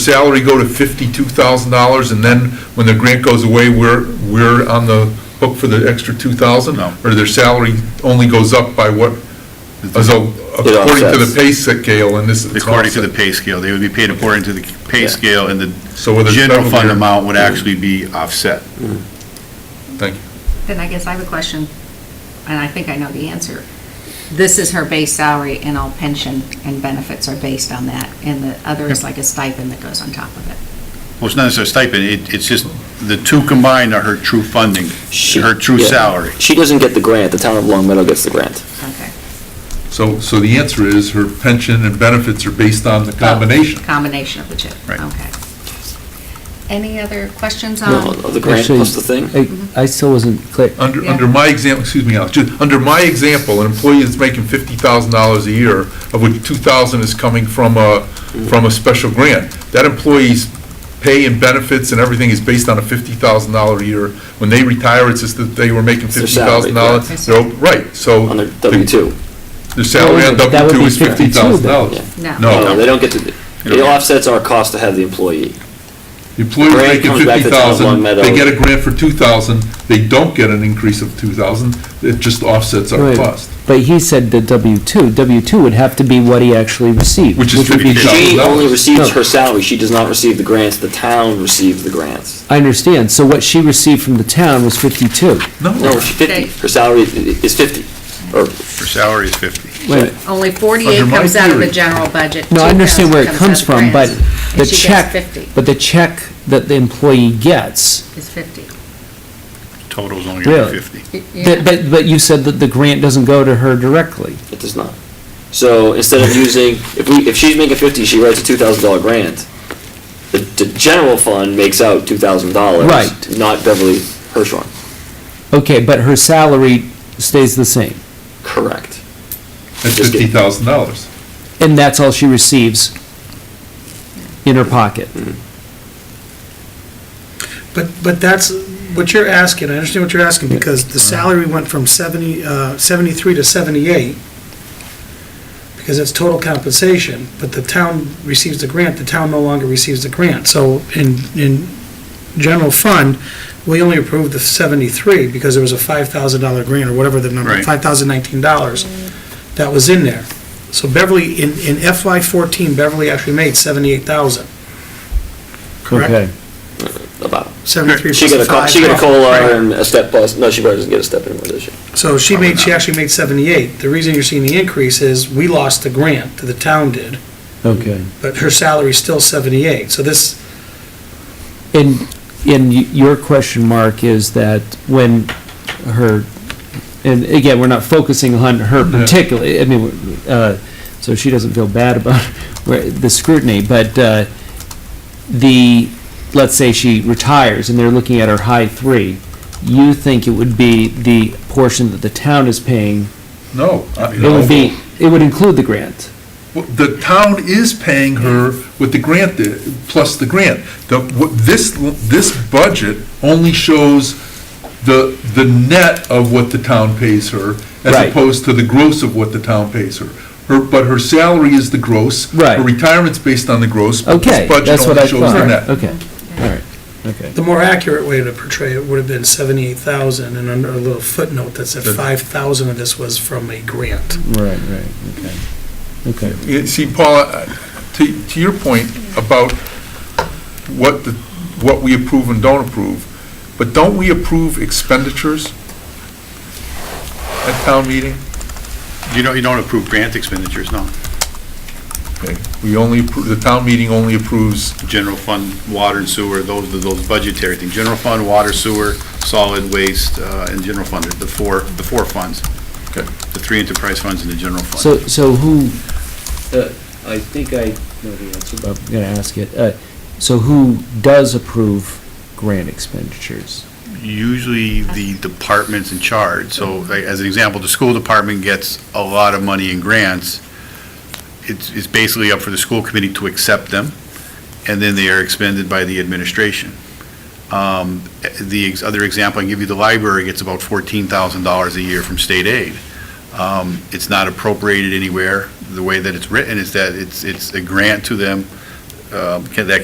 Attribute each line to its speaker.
Speaker 1: salary go to fifty-two thousand dollars, and then when the grant goes away, we're, we're on the hook for the extra two thousand?
Speaker 2: No.
Speaker 1: Or their salary only goes up by what, as a- according to the
Speaker 3: offsets.
Speaker 1: pay scale, and this is.
Speaker 2: According to the pay scale, they would be paid according to the pay
Speaker 3: Yeah.
Speaker 2: scale, and the
Speaker 1: So whether it's
Speaker 2: general
Speaker 1: federal
Speaker 2: fund
Speaker 1: or-
Speaker 2: amount would actually be offset.
Speaker 1: Thank you.
Speaker 4: Then I guess I have a question, and I think I know the answer. This is her base salary, and all pension and benefits are based on that, and the other is like a stipend that goes on top of it.
Speaker 2: Well, it's not necessarily stipend, it, it's just, the two combined are her true funding,
Speaker 3: She-
Speaker 2: her true
Speaker 3: yeah.
Speaker 2: salary.
Speaker 3: She doesn't get the grant, the town of Long Meadow gets the grant.
Speaker 4: Okay.
Speaker 1: So, so the answer is her pension and benefits are based on
Speaker 4: Oh.
Speaker 1: the combination.
Speaker 4: Combination of the two.
Speaker 2: Right.
Speaker 4: Okay. Any other questions
Speaker 3: No,
Speaker 4: on,
Speaker 3: of the grant plus the thing.
Speaker 5: Actually, I I still wasn't clear.
Speaker 1: Under,
Speaker 4: Yeah.
Speaker 1: under my example, excuse me, Alex, just, under my example, an employee that's making fifty thousand dollars a year, of which two thousand is coming from a, from a special grant, that employee's pay and benefits and everything is based on a fifty thousand dollar a year. When they retire, it's just that they were making
Speaker 3: It's their
Speaker 1: fifty
Speaker 3: salary,
Speaker 1: thousand dollars.
Speaker 4: correct.
Speaker 1: Right, so.
Speaker 3: On their
Speaker 1: the-
Speaker 3: W-2.
Speaker 1: Their salary on
Speaker 5: That would be- that
Speaker 1: W
Speaker 5: would
Speaker 1: two
Speaker 5: be
Speaker 1: is fifty
Speaker 5: 52 then.
Speaker 1: thousand dollars.
Speaker 4: Yeah.
Speaker 2: Oh,
Speaker 1: No.
Speaker 3: No, they don't get to, it offsets our cost to have the employee.
Speaker 1: The Employee's
Speaker 3: Grant
Speaker 1: making
Speaker 3: comes back
Speaker 1: fifty
Speaker 3: to the town of Long
Speaker 1: thousand,
Speaker 3: Meadow.
Speaker 1: they get a grant for two thousand, they don't get an increase of two thousand, it just offsets our
Speaker 5: Right.
Speaker 1: cost.
Speaker 5: But he said the W-2, W-2 would have to be what he actually received.
Speaker 1: Which is
Speaker 5: would be the-
Speaker 1: 50K.
Speaker 3: She only receives
Speaker 5: No.
Speaker 3: her salary, she does not receive the grants, the town receives the grants.
Speaker 5: I understand, so what she received from the town was 52.
Speaker 3: No, she 50, her salary is 50, or,
Speaker 2: Her salary is 50.
Speaker 5: Wait,
Speaker 4: only 48
Speaker 1: Under my
Speaker 4: comes out of the
Speaker 1: theory.
Speaker 4: general budget.
Speaker 5: No, I understand where it
Speaker 4: 2,000
Speaker 5: comes
Speaker 4: out
Speaker 5: from,
Speaker 4: of
Speaker 5: but
Speaker 4: grants, and
Speaker 5: the
Speaker 4: she gets
Speaker 5: check,
Speaker 4: 50,
Speaker 5: but the check that the employee gets,
Speaker 4: is 50.
Speaker 2: Total's only gonna be
Speaker 5: Really?
Speaker 2: 50.
Speaker 4: Y- yeah.
Speaker 5: that- but, but you said that the grant doesn't go to her directly.
Speaker 3: it does not. So instead of using, if we, if she's making 50, she writes a $2,000 grant, the, the general fund makes out $2,000.
Speaker 5: Right.
Speaker 3: Not Beverly Hirschhorn.
Speaker 5: Okay, but her salary stays the same,
Speaker 3: Correct.
Speaker 1: That's
Speaker 3: Just
Speaker 1: fifty
Speaker 3: get-
Speaker 1: thousand dollars.
Speaker 5: and that's all she receives in her pocket.
Speaker 6: But, but that's what you're asking, I understand what you're asking, because the salary went from 70, uh, 73 to 78, because it's total compensation, but the town receives the grant, the town no longer receives the grant. So in, in general fund, we only approved the 73 because there was a $5,000 grant or whatever the number,
Speaker 2: Right.
Speaker 6: $5,019 that was in there. So Beverly, in, in FY '14, Beverly actually made 78,000,
Speaker 5: Okay.
Speaker 6: correct?
Speaker 3: About.
Speaker 6: 73
Speaker 3: She
Speaker 6: plus
Speaker 3: got
Speaker 6: the
Speaker 3: a, co-
Speaker 6: five.
Speaker 3: she got a COLA
Speaker 6: Right.
Speaker 3: and a step plus, no, she probably doesn't get a step anymore, does she?
Speaker 6: So she
Speaker 2: Probably
Speaker 6: made, she
Speaker 2: not.
Speaker 6: actually made 78. The reason you're seeing the increase is we lost the grant, that the town did,
Speaker 5: Okay.
Speaker 6: but her salary's still 78. So this,
Speaker 5: And, and y- your question, Mark, is that when her, and again, we're not focusing on her particularly, I mean, uh, so she doesn't feel bad about where- the scrutiny, but uh, the, let's say she retires and they're looking at her high three, you think it would be the portion that the town is paying,
Speaker 1: No. I-
Speaker 5: it would be, it would include the grant?
Speaker 1: Well, The town is paying her with the grant, uh, plus the grant. The, what, this, this budget only shows the, the net of what the town pays her, as
Speaker 5: Right.
Speaker 1: opposed to the gross of what the town pays her. Her, but her salary is the gross.
Speaker 5: Right.
Speaker 1: Her retirement's based on the gross. but this
Speaker 5: Okay,
Speaker 1: budget
Speaker 5: that's what
Speaker 1: only
Speaker 5: I
Speaker 1: shows the
Speaker 5: thought,
Speaker 1: net.
Speaker 5: okay, all right, okay.
Speaker 6: the more accurate way to portray it would have been 78,000 and under a little footnote that said 5,000 of this was from a grant.
Speaker 5: Right, right, okay, okay.
Speaker 1: Yeah, See, Paula, uh, to, to your point about what the, what we approve and don't approve, but don't we approve expenditures at town meeting?
Speaker 2: You don't, you don't approve grant expenditures, no.
Speaker 1: Okay, We only, appro- the town meeting only approves,
Speaker 2: General fund, water and sewer, those, are those budgetary things. General fund, water, sewer, solid waste, uh, and general fund, the four, the four funds.
Speaker 1: Okay.
Speaker 2: The three enterprise funds and the general fund.
Speaker 5: So, so who, uh, I think I know the answer, but I'm gonna ask it. Uh, So who does approve grant expenditures?
Speaker 2: usually the departments in charge. So like, as an example, the school department gets a lot of money in grants. It's, it's basically up for the school committee to accept them, and then they are expended by the administration. Um, The ex- other example I can give you, the library gets about $14,000 a year from state aid. Um, It's not appropriated anywhere. The way that it's written is that it's, it's a grant to them um, can- that